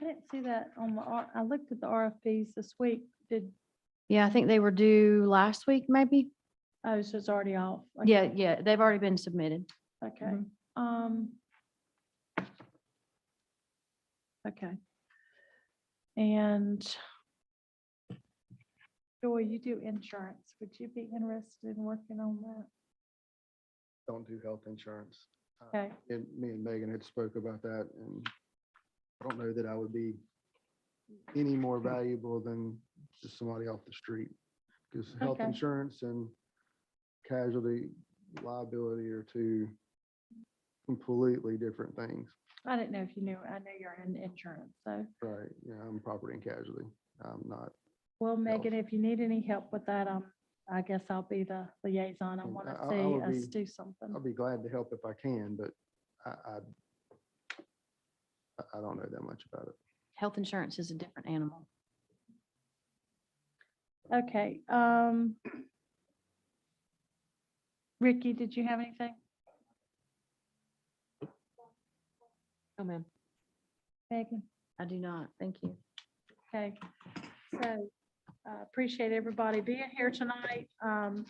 I didn't see that on the, R- I looked at the RFPs this week. Did, Yeah, I think they were due last week, maybe. oh, so it's already off. Okay, Yeah, yeah, they've already been submitted. Okay, um. Okay. And Joy, you do insurance. Would you be interested in working on that? don't do health insurance. Uh, Okay, And me and Megan had spoke about that and I don't know that I would be any more valuable than just somebody off the street. Because health Okay. insurance and casualty liability are two completely different things. I didn't know if you knew, I know you're in insurance, so. Right, you know, I'm property and casualty. I'm not. Well, Megan, if you need any help with that, um, I guess I'll be the liaison. I And want Mm, I- to I- I would see us be- do something. I'll be glad to help if I can, but I, I I- I don't know that much about it. Health insurance is a different animal. Okay, um. Ricky, did you have anything? Oh, ma'am. Megan? I do not. Thank you. Okay, so uh, appreciate everybody being here tonight. Um,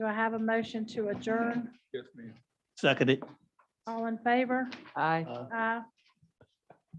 Do I have a motion to adjourn? Yes, ma'am. Second it. All in favor? Aye. Aye.